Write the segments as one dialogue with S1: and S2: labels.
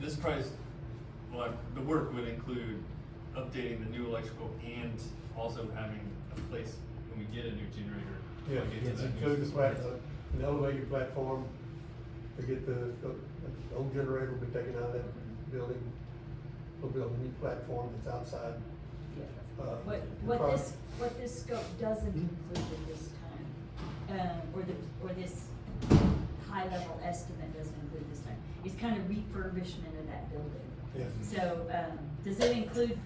S1: this price, well, the work would include updating the new electrical and also having a place when we get a new generator. to
S2: Yeah,
S1: plug into
S2: it's
S1: that new
S2: include the
S1: system.
S2: plat, uh, an elevated platform to get the, the old generator will be taken out of that building. We'll build a new platform that's outside.
S3: Yeah.
S2: uh, Hmm?
S3: What,
S2: the
S3: what
S2: pro-
S3: this, what this scope doesn't include at this time, um, or the, or this high-level estimate doesn't include this time, is kind of refurbishment of that building.
S2: Yes.
S3: So, um, does it include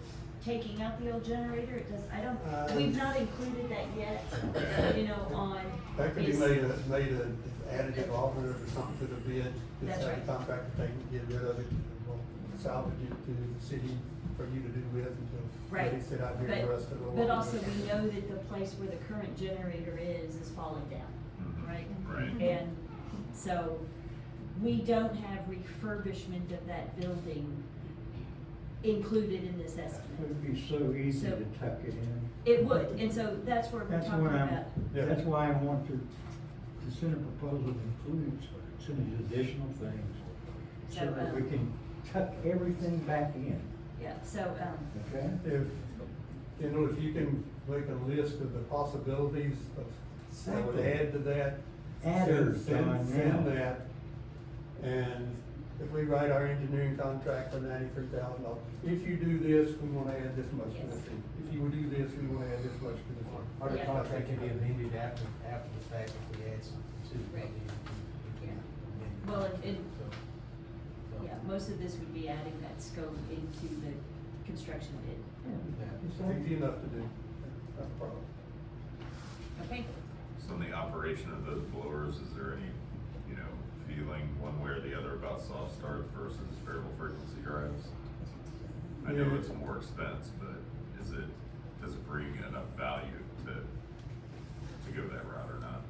S3: taking out the old generator? It does, I don't,
S2: Um,
S3: we've not included that yet, you know, on.
S2: That could be
S3: is-
S2: made a, made an additive offer or something to the bid,
S3: That's
S2: just have
S3: right.
S2: the contractor take and get rid of it, and we'll salvage it to the city for you to do with until.
S3: Right,
S2: They sit out here and the rest of it.
S3: but, but also we know that the place where the current generator is, is falling down,
S4: Mhm.
S3: right?
S5: Mm-hmm.
S4: Right.
S3: And so, we don't have refurbishment of that building included in this estimate.
S5: It'd be so easy
S3: So-
S5: to tuck it in.
S3: It would, and so that's where we're
S5: That's
S3: talking
S5: what
S3: about.
S5: I'm,
S2: Yeah.
S5: that's why I want to, to send a proposal that includes some of these additional things. So
S3: So,
S5: that
S3: um,
S5: we can tuck everything back in,
S3: Yeah, so, um,
S5: okay?
S2: If, you know, if you can make a list of the possibilities of, I would
S5: Exactly.
S2: add to that.
S5: Adders,
S2: send-
S5: Don,
S2: send-
S5: yeah.
S2: Send that, and if we write our engineering contract for ninety-three thousand dollars, if you do this, we wanna add this much to the
S3: Yes.
S2: fee. If you would do this, we wanna add this much to the fee.
S6: Or the
S3: Yeah.
S6: contract can be amended after, after the fact if we add something to it.
S3: Right.
S6: We can- we can amend it.
S3: Well, it- it-
S6: So, so,
S3: yeah, most of this would be adding that scope into the construction bid.
S2: Easy
S5: Yeah.
S2: enough to do, not a problem.
S3: Okay,
S4: So in the operation of those blowers, is there any, you know, feeling one way or the other about soft start versus variable frequency drives? I know
S2: Yeah.
S4: it's more expense, but is it, does it bring enough value to, to go that route or not?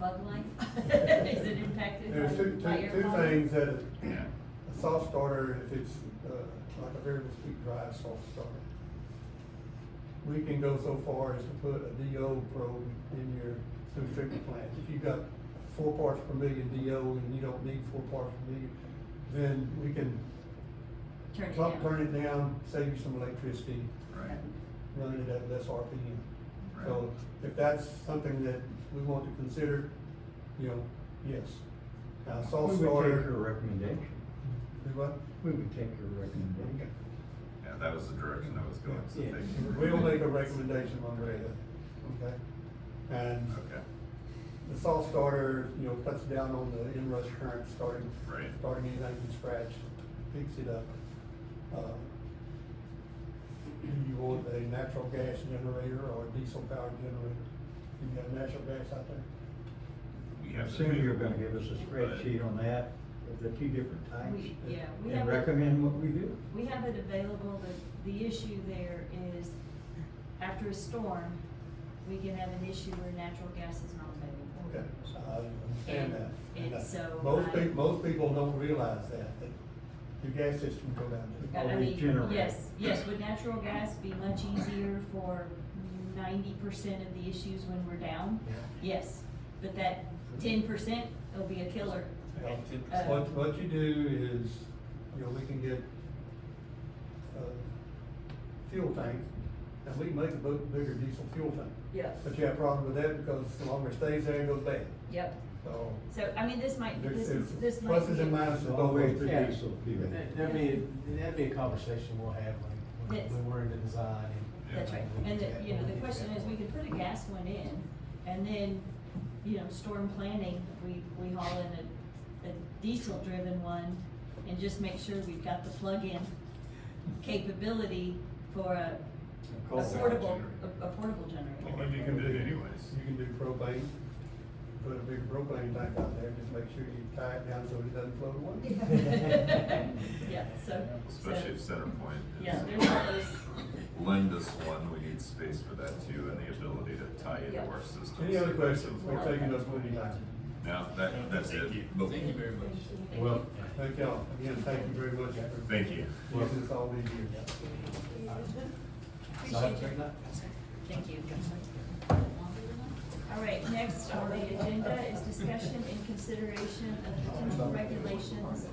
S3: bug life, is it impacted by?
S2: There's two,
S3: by
S2: two,
S3: air
S2: two
S3: quality?
S2: things that
S4: Yeah.
S2: A soft starter, if it's uh, like a variable speed drive soft starter, we can go so far as to put a DO probe in your food treatment plant. If you've got four parts per million DO and you don't need four parts per million, then we can
S3: Turn it
S2: plump,
S3: down.
S2: turn it down, save you some electricity,
S4: Right,
S2: running it at less RPM.
S4: right.
S2: So if that's something that we want to consider, you know, yes. Now,
S5: We
S2: soft
S5: would take your
S2: starter,
S5: recommendation.
S2: do what?
S5: We would take your recommendation.
S4: Yeah, that was the direction I was going, so
S5: Yeah.
S4: thank you.
S2: We'll make a recommendation on Reda, okay? And
S4: Okay,
S2: the salt starter, you know, cuts down on the inrush current, starting,
S4: Right.
S2: starting anything from scratch, picks it up. Uh, Do you want a natural gas generator or a diesel powered generator? You got natural gas out there?
S4: we
S5: I
S4: have. to
S5: assume
S4: do-
S5: you're gonna give us a
S4: but-
S5: spreadsheet on that, of the two different types.
S3: We- yeah, we
S5: And
S3: have-
S5: recommend what we do.
S3: We have it available, but the issue there is after a storm, we can have an issue where natural gas is not available.
S2: Okay, I understand that.
S3: And- and
S2: uh,
S3: so
S2: Most
S3: I-
S2: people, most people don't realize that, that your gas system go down.
S3: I- I
S5: Or
S3: mean,
S5: regenerate.
S3: Yes, yes, would natural gas be much easier for ninety percent of the issues when we're down?
S6: Yeah.
S3: Yes, but that ten percent will be a killer.
S2: Yeah.
S3: Uh,
S2: What, what you do is, you know, we can get, uh, fuel tank, and we can make a big, bigger diesel fuel tank.
S3: Yep.
S2: But you have a problem with that because the longer it stays there, it goes bad,
S3: Yep,
S2: so.
S3: so I mean, this might,
S2: there's-
S3: this,
S2: there's
S3: this might.
S2: Pluses
S3: be-
S2: and minuses both ways.
S5: Always
S2: to
S5: the
S6: Yeah.
S5: diesel fuel.
S6: That- That'd be, that'd be a conversation we'll have when-
S3: Yes.
S6: when, when we're in the design and.
S3: That's right, and the, you know, the question is, we could put a gas one in, and then, you know, storm planning, we, we haul in a, a diesel-driven one, and just make sure we've got the plug-in capability for
S2: A
S3: a a
S2: coal power
S3: portable,
S2: generator.
S3: a a portable
S4: Well,
S3: generator.
S4: maybe you can do it anyways.
S2: You can do propane, put a big propane tank out there, just make sure you tie it down so it doesn't float away.
S3: Yeah, so. so-
S4: Especially if Centerpoint is.
S3: Yeah, there's all those,
S4: lend us one, we need space for that too, and the ability to tie into our system.
S2: Any other questions? We're taking up plenty of time.
S4: No, that, that's it.
S1: Thank you,
S4: But-
S1: thank you very much.
S3: thank you.
S6: Well,
S2: Thank y'all, again, thank you very much for
S4: Thank you.
S2: giving us all these years.
S6: so,
S3: Appreciate you. Thank you. All right, next on the agenda is discussion and consideration of potential regulations